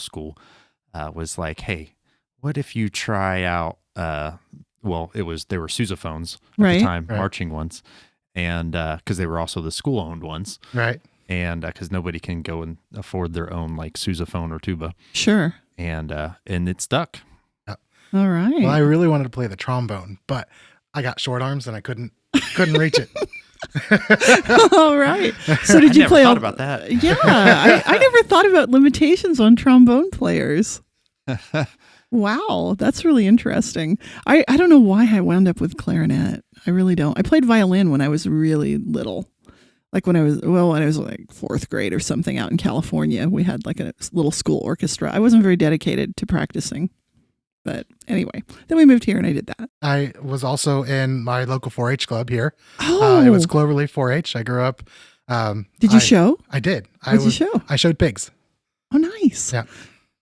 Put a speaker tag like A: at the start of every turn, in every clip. A: school uh, was like, hey, what if you try out? Uh, well, it was they were sousaphones at
B: Right.
A: the time,
C: Right.
A: marching ones, and because they were also the school owned ones,
C: Right.
A: and because nobody can go and afford their own like sousaphone or tuba,
B: Sure.
A: and uh, and it stuck.
B: All right.
C: Well, I really wanted to play the trombone, but I got short arms and I couldn't couldn't reach it.
B: all right. So did
A: I
B: you
A: never
B: play
A: thought
B: all-
A: about that.
B: Yeah, I, I never thought about limitations on trombone players. wow, that's really interesting. I, I don't know why I wound up with clarinet. I really don't. I played violin when I was really little. Like when I was, well, when I was like fourth grade or something out in California, we had like a little school orchestra. I wasn't very dedicated to practicing. But anyway, then we moved here and I did that.
C: I was also in my local 4-H club here.
B: Oh,
C: Uh, it was Cloverleaf 4-H. I grew up. Um,
B: did you
C: I,
B: show?
C: I did. I
B: What did
C: was.
B: you show?
C: I showed pigs.
B: Oh, nice.
C: Yeah.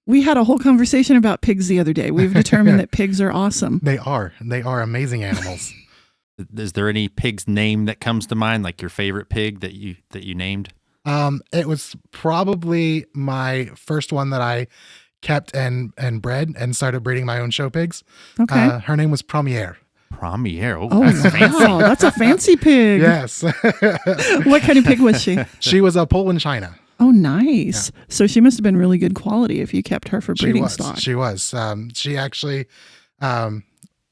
B: We had a whole conversation about pigs the other day. We've determined that pigs are awesome.
C: They are. They are amazing animals.
A: Is there any pig's name that comes to mind, like your favorite pig that you that you named?
C: Um, it was probably my first one that I kept and and bred and started breeding my own show pigs.
B: Okay.
C: Uh, her name was Promier.
A: Premier. Oh,
B: oh,
A: that's fancy.
B: wow. That's a fancy pig.
C: Yes,
B: What kind of pig was she?
C: she was a Poland China.
B: Oh, nice. So she must have been really good quality if you kept her for
C: She
B: breeding
C: was.
B: stock.
C: She was. Um, she actually, um,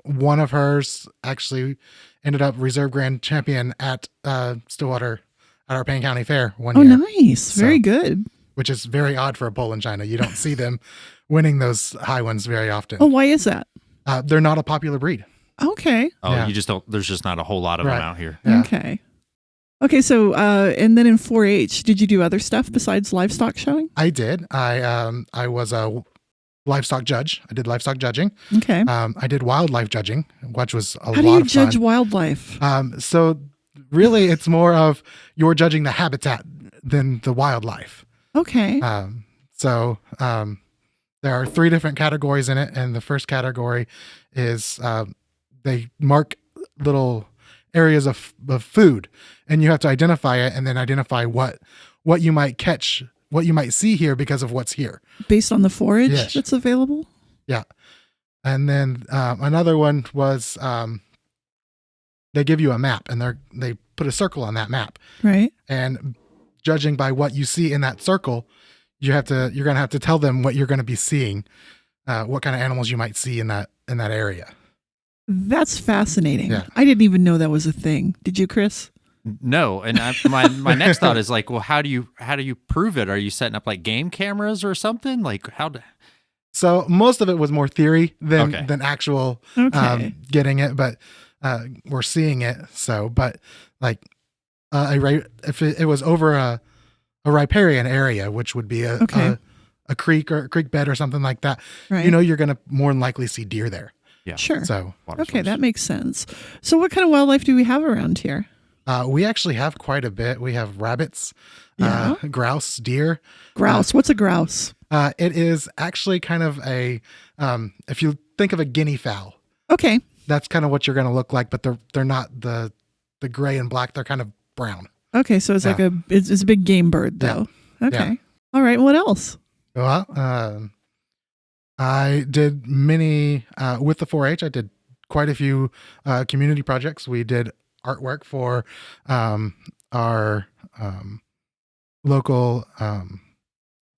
C: one of hers actually ended up reserve grand champion at uh, Stillwater at our Payne County Fair one
B: oh,
C: year,
B: nice. Very good.
C: which is very odd for a Poland China. You don't see them winning those high ones very often.
B: Oh, why is that?
C: Uh, they're not a popular breed.
B: Okay.
A: Oh,
C: Yeah.
A: you just don't. There's just not a whole lot of
C: Right.
A: them out here.
C: Yeah.
B: Okay. Okay. So, uh, and then in 4 H, did you do other stuff besides livestock showing?
C: I did. I um I was a livestock judge. I did livestock judging.
B: Okay.
C: Um, I did wildlife judging, which was a
B: Mm-hmm. How
C: lot
B: do you
C: of
B: judge
C: fun.
B: wildlife?
C: Um, so really, it's more of you're judging the habitat than the wildlife.
B: Okay.
C: Um, so um, there are three different categories in it, and the first category is um, they mark little areas of, of food, and you have to identify it, and then identify what what you might catch, what you might see here because of what's here.
B: Based on the forage
C: yes.
B: that's available?
C: And then um, another one was um, they give you a map, and they are they put a circle on that map,
B: Right.
C: and judging by what you see in that circle you have to you're gonna have to tell them what you're gonna be seeing uh, what kind of animals you might see in that in that area
B: That's fascinating.
C: Yeah.
B: I didn't even know that was a thing. Did you, Chris?
A: No, and I, my my next thought is like, well, how do you how do you prove it? Are you setting up like game cameras or something? Like how? Do,
C: so most of it was more theory than
A: Okay.
C: than actual
B: Okay.
C: um, getting it but uh, we're seeing it so but like uh, a, ri- if it, it was over a a riparian area which would be a,
B: Okay.
C: a a creek or a creek bed or something like that
B: right.
C: you know you're gonna more than likely see deer there
A: yeah.
B: sure.
C: so
A: Water
B: okay,
A: source.
B: that makes sense. So, what kind of wildlife do we have around here?
C: Uh, we actually have quite a bit. We have rabbits, uh, grouse, deer.
B: Grouse. What's a grouse?
C: Uh, it is actually kind of a, um, if you think of a guinea fowl,
B: Okay.
C: that's kind of what you're going to look like, but they're they're not the the gray and black. They're kind of brown.
B: Okay, so it's like
C: Yeah.
B: a it's, it's a big game bird
C: Yeah.
B: though. Okay. All right. What else?
C: Well, um, I did many uh, with the 4-H. I did quite a few uh, community projects. We did artwork for um, our um, local um,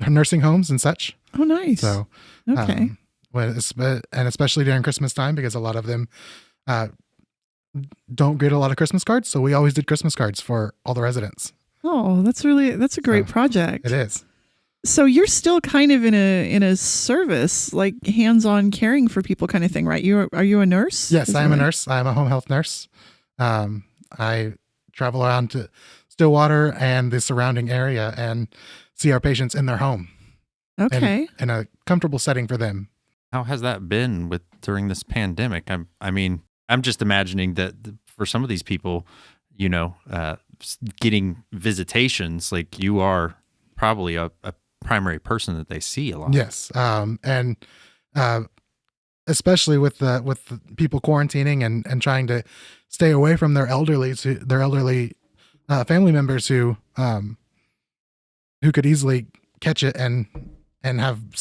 C: nursing homes and such.
B: Oh, nice.
C: So.
B: okay.
C: Um, when it's- but- and especially during Christmas time, because a lot of them uh, don't get a lot of Christmas cards. So we always did Christmas cards for all the residents.
B: oh, that's really that's a great
C: so
B: project.
C: It is.
B: So you're still kind of in a in a service like hands-on caring for people kind of thing, right? You are, are you a nurse?
C: Yes,
B: Is
C: I am a
B: that-
C: nurse. I'm a home health nurse. Um, I travel around to Stillwater and the surrounding area and see our patients in their home and
B: Okay.
C: in a comfortable setting for them.
A: How has that been with during this pandemic? I'm I mean I'm just imagining that th- for some of these people, you know, uh, s- getting visitations like you are probably a, a primary person that they see a lot.
C: Yes. Um, and uh, especially with the with the people quarantining and and trying to stay away from their elderly to their elderly uh, family members who um who could easily catch it and and have